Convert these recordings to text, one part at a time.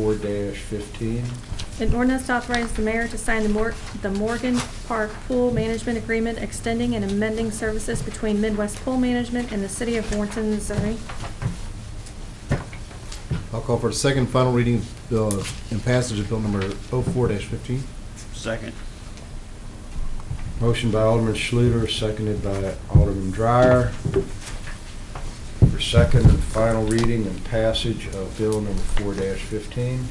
four fifteen. An ordinance to authorize the mayor to sign the Mor- the Morgan Park Pool Management Agreement extending and amending services between Midwest Pool Management and the city of Warrenton, Missouri. I'll call for the second and final reading of bill and passage of bill number 04-15. Second. Motion by Alderman Schluter, seconded by Alderman Dreyer. For second and final reading and passage of bill number four fifteen.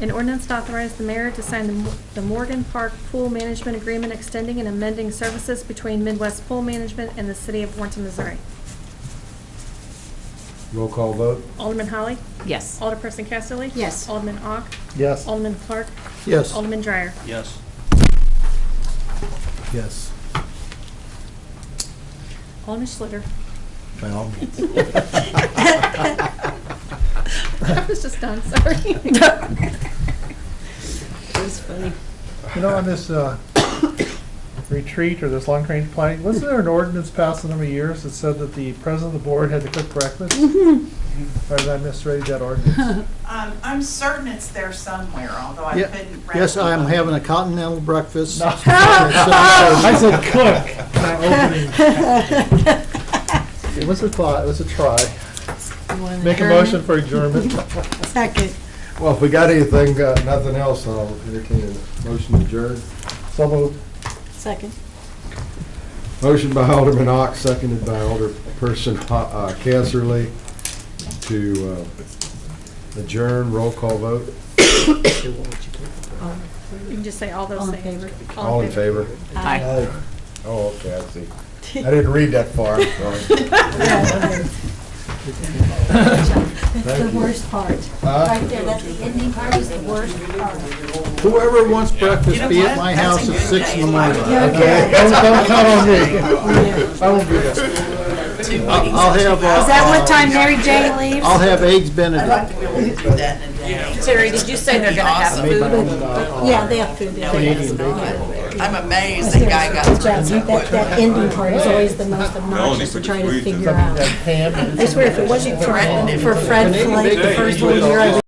An ordinance to authorize the mayor to sign the Mo- the Morgan Park Pool Management Agreement extending and amending services between Midwest Pool Management and the city of Warrenton, Missouri. Roll call vote? Alderman Holly? Yes. Alderperson Casterly? Yes. Alderman Ock? Yes. Alderman Clark? Yes. Alderman Dreyer? Yes. Yes. Alderman Schluter? By all means. I was just done, sorry. It was funny. You know, on this uh, retreat or this long range planning, wasn't there an ordinance passed a number of years that said that the president of the board had to cook breakfast? Or did I misread that ordinance? Um, I'm certain it's there somewhere, although I Ye- couldn't. Yes, I am recollect. having a continental breakfast. No. I It's- said cook, not opening. It was a thought, it was a try. Make a motion for adjournment. Second. Well, if we got anything, uh, nothing else, I'll entertain a motion to adjourn. So moved. Second. Motion by Alderman Ock, seconded by Alderperson Ho- uh, Casterly to uh, adjourn. Roll call vote. You can just say all those All in things. favor? All in favor? Aye. Oh, okay, I see. I didn't read that far, I'm sorry. That's the worst part. Huh? Right there, that's the ending part is the worst part. Whoever wants breakfast, be at my house at six in the morning. Okay. Don't, don't count on me. I won't be there. I'll I'll have, uh, Is that what time Mary Jane leaves? I'll have eggs Benedict. Oh, uh, Terry, did you say they're gonna have food? Yeah, they have food. yeah. I'm amazed that guy got Good job. That, that ending part is always the most obnoxious to try to figure out. Ham. I swear, if it wasn't for, for Fred Flake, the first one, we were